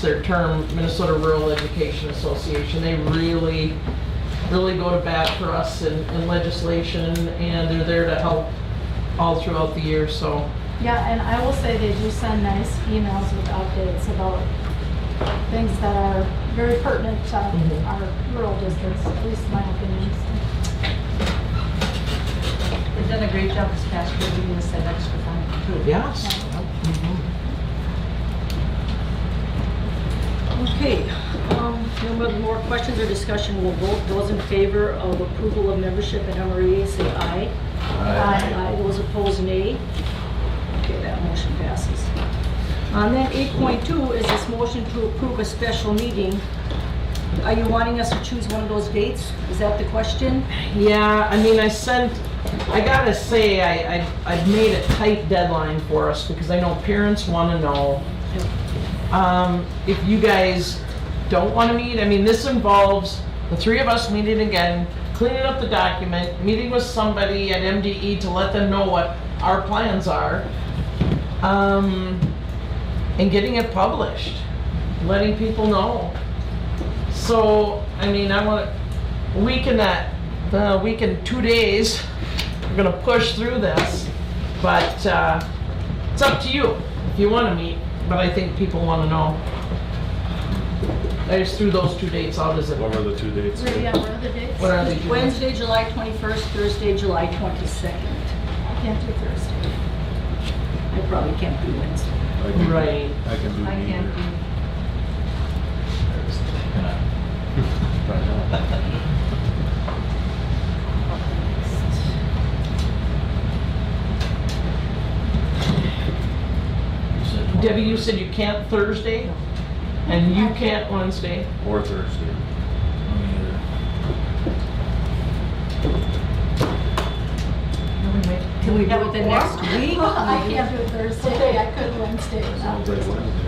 their term, Minnesota Rural Education Association. They really, really go to bat for us in in legislation, and they're there to help all throughout the year, so. Yeah, and I will say they do send nice emails with updates about things that are very pertinent to Mhm. our rural districts, at least my opinion. They've done a great job this past year, giving us that extra fund too. Yes. Mm-hmm. Okay, um, no more- more questions or discussion, we'll vote. Those in favor of approval of membership in MREA, say aye. Aye. Those opposed, nay. Okay, that motion passes. Uh, On that 8.2 is this motion to approve a special meeting. Are you wanting us to choose one of those dates? Is that the question? Yeah, I mean, I sent, I gotta say, I, I, I've made a tight deadline for us, because I know parents wanna know. Um, if you guys don't wanna meet, I mean, this involves the three of us meeting again, cleaning up the document, meeting with somebody at MDE to let them know what our plans are. Um, and getting it published, letting people know. So, I mean, I wanna, week in that, uh, week in two days, we're gonna push through this, but, uh, it's up to you if you wanna meet, but I think people wanna know. I just threw those two dates out as What a, were the two dates? Where do you have other dates? what are they doing? Wednesday, July 21st, Thursday, July 22nd. I can't do Thursday. I probably can't do Wednesday. I can- Right. I can do I can't neither. do, Debbie, you said you can't Thursday, and you can't Wednesday. Or Thursday. Can we do it the next week? I can't do Thursday, I could Wednesday. Um, Sounds like Wednesday.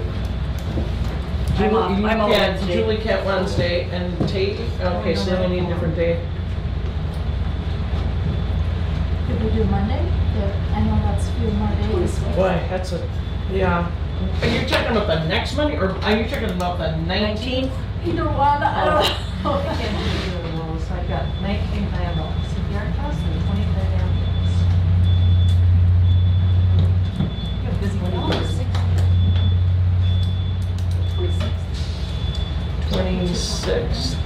I'm off- Julie- you I'm off can't- Wednesday. Julie can't Wednesday, and Tate, okay, so then we need a different day. Could we do Monday? Yeah, I know that's a few more days. but- Boy, that's a, yeah. Are you talking about the next Monday, or are you talking about the 19th? Either one, I don't know. I can't do either of those. I've got nineteen planned on CPR class and twenty planned ambulance. You have busy calendars. 26th.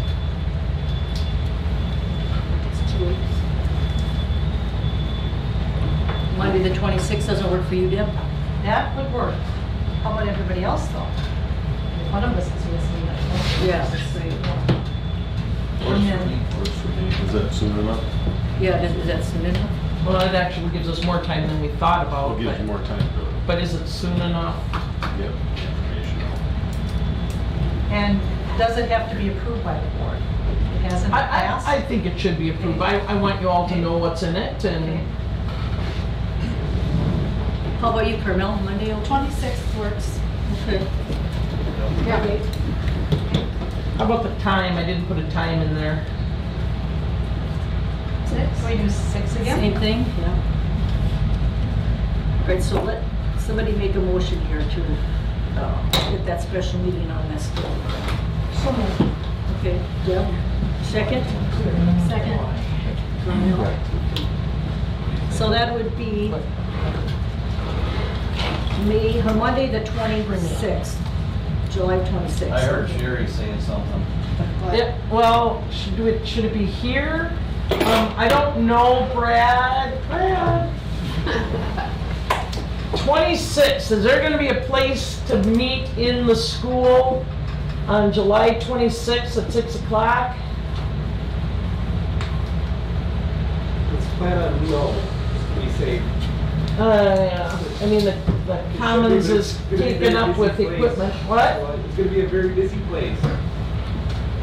It's two weeks. Monday, the 26th doesn't work for you, Deb? That would work. How about everybody else though? One of us is missing that. one. Yeah. That's great. Works Yeah. for me. Works for me. Is that soon enough? Yeah, is is that soon enough? Well, that actually gives us more time than we thought I'll about, give you but, more time to but is it soon enough? get information out. And does it have to be approved by the board? It hasn't I, I, passed? I think it should be approved. I, I want you all to know what's in it, Okay. and How about you, Carmel, Monday, oh, 26th works. okay. Yeah. how about the time? I didn't put a time in there. Six? Can we do six again? Same thing, yeah. All right, so let, somebody make a motion here to uh, get that special meeting on this. So moved. Okay, Deb, second? Second. Carmel. So that would be May, or Monday, the 26th, July 26th. I heard Sherry saying something. Yeah, well, should do it, should it be here? Um, I don't know, Brad, Brad. Twenty-six, is there gonna be a place to meet in the school on July twenty-sixth at six o'clock? It's plan on no, we say. Uh, I mean, the, the Commons is It's gonna be a taken up busy with place. equipment, what? Well, It's gonna be a very busy place.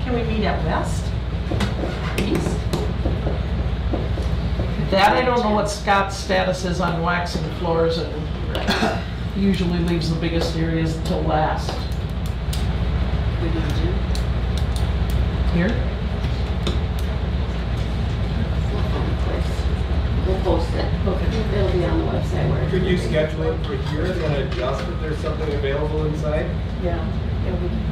Can we meet at West? East? That, I don't know what Scott's status is on waxing floors and usually leaves the biggest areas till last. Here? We'll post it. Okay. It'll be on the website where. Could you schedule it for here and then adjust if there's something available inside? Yeah. Yeah, we can.